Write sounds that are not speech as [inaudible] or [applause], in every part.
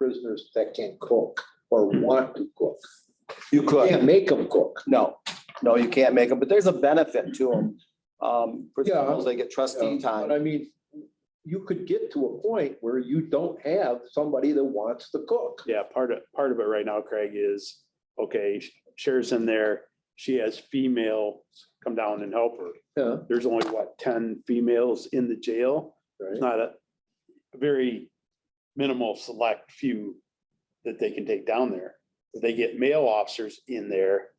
prisoners that can cook or want to cook. You You could, Can't make them cook. no, no, you can't make them, but there's a benefit to them. Um, for Yeah. example, they get trustee But time. I mean, you could get to a point where you don't have somebody that wants to cook. Yeah, part of, part of it right now, Craig, is, okay, Cher's in there, she has female come down and help her. Yeah, There's only, what, ten females in the jail? right. It's not a a very minimal select few that they can take down there. If They get male officers in there.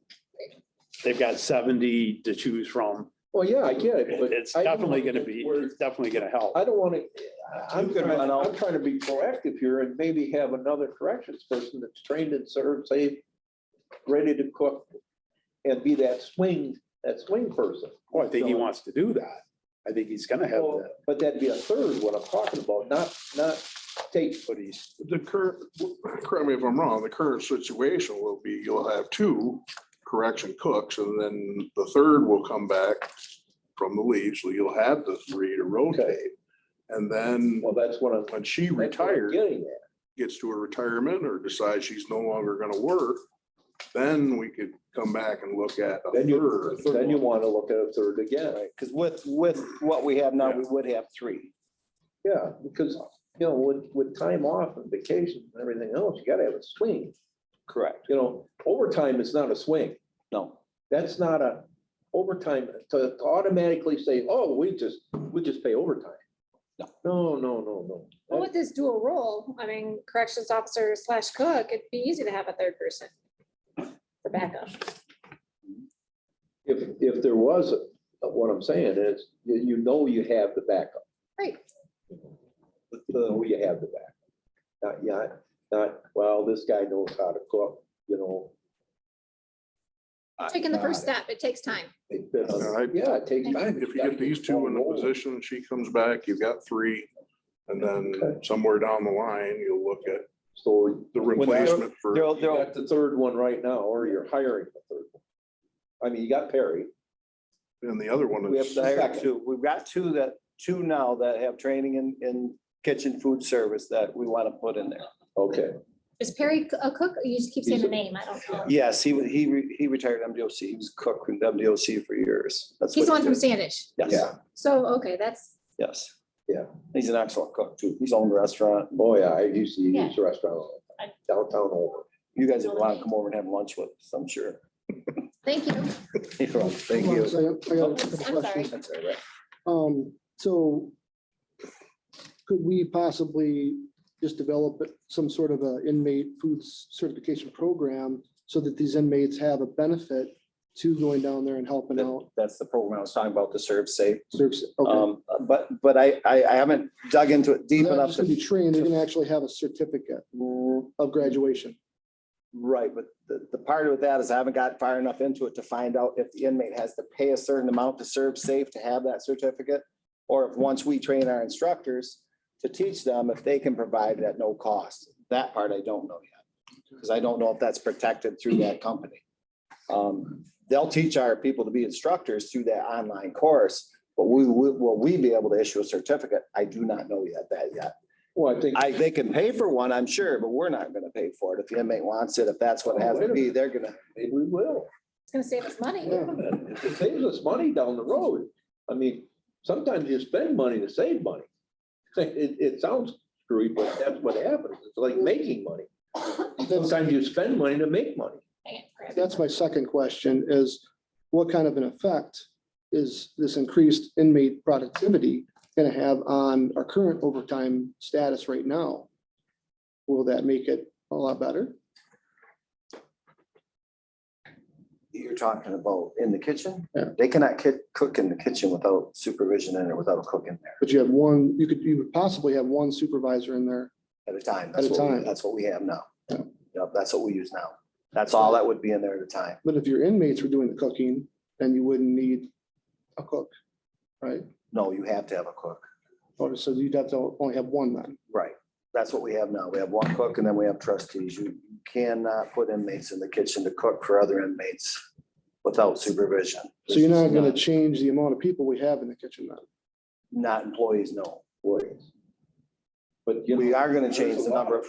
They've got seventy to choose from. Well, yeah, I get it, but. It's I don't definitely wanna gonna get be, where- it's definitely gonna help. I don't want to, I'm You could trying, run out. I'm trying to be proactive here and maybe have another corrections person that's trained and served, safe, ready to cook and be that swing, that swing person. Well, Oh, I think he wants to do that. I think he's gonna have Well, that. But that'd be a third, what I'm talking about, not, not take. But he's, The current, correct me if I'm wrong, the current situation will be you'll have two correction cooks and then the third will come back from the leave, so you'll have the three to rotate. And then Well, that's what I'm. when she that's what I'm retires, Getting at. gets to her retirement or decides she's no longer gonna work, then we could come back and look at a Then third. you, then you want to look at a third again. Because with, with what we have now, we would have three. Yeah, because, you know, with, with time off and vacations and everything else, you gotta have a swing. Correct. You know, overtime is not a swing. No, That's not a overtime to to automatically say, oh, we just, we just pay overtime. No. No, no, no, Well, no. with this dual role, I mean, corrections officer slash cook, it'd be easy to have a third person. For backup. If, if there was, a- what I'm saying is, you you know you have the backup. Right. You know uh, you have the backup. Not, yeah, not, well, this guy knows how to cook, you know. Taking the first step, it takes time. It- it's- Yeah, I- Yeah, it takes time. If you get these two in the position, she comes back, you've got three. And then somewhere down the line, you'll look at So the When they're- replacement for. there'll, you there'll, got the third one right now, or you're hiring the third one. I mean, you got Perry. And the other one we have is, to hire Second. two. We've got two that, two now that have training in, in kitchen food service that we want to put in there. Okay. Is Perry a cook? You just keep saying the name. I don't know. Yes, he, wa- he, re- he retired MDOC. He was cook in MDOC for years. That's He's the what he one from did. Standish. Yes, Yeah. So, okay, that's, yes. Yeah. He's an excellent cook too. He's owned a restaurant. Oh, yeah, I used to Yeah. use the restaurant all the time, downtown over. You guys would want to come over and have lunch with us, I'm sure. thank you. Thank Hold on a second, I got a Oh, I'm couple sorry. questions. Um, so could we possibly just develop some sort of a inmate food certification program so that these inmates have a benefit to going down there and helping out? That's the program I was talking about, the serve safe. Serves, okay. Um, but, but I, I, I haven't dug into it deep They're not enough just gonna be to. trained, they're gonna actually have a certificate of graduation. Right, but the, the part of that is I haven't got far enough into it to find out if the inmate has to pay a certain amount to serve safe to have that certificate. Or if, once we train our instructors to teach them, if they can provide it at no cost. That part I don't know yet. Because I don't know if that's protected through that company. Um, they'll teach our people to be instructors through that online course. But we, we- will we be able to issue a certificate? I do not know yet that yet. Well, I think, I, they can pay for one, I'm sure, but we're not gonna pay for it. If the inmate wants it, if that's what it has to be, they're gonna. maybe we will. It's gonna save us money. Yeah. If It saves us money down the road. I mean, sometimes you spend money to save money. [laughs] It, it sounds screwy, but that's what happens. It's like making money. That's, Sometimes you spend money to make money. Hang it, grab it. that's my second question is what kind of an effect is this increased inmate productivity gonna have on our current overtime status right now? Will that make it a lot better? You're talking about in the kitchen? Yeah. They cannot ki- cook in the kitchen without supervision in or without a cook in there But you have one, you could, you would possibly have one supervisor in there. at a time. At a That's what, we- time. that's what we have now. Yeah. Yep, that's what we use now. That's all that would be in there at a time. But if your inmates were doing the cooking, then you wouldn't need a cook, right? No, you have to have a cook. Or so you'd have to only have one then. Right. That's what we have now. We have one cook and then we have trustees. You you cannot put inmates in the kitchen to cook for other inmates without supervision. So you're not This is gonna change the amount of people we have in the kitchen then. Not employees, no. Warriors. But you know. We are gonna there's change a the lot number of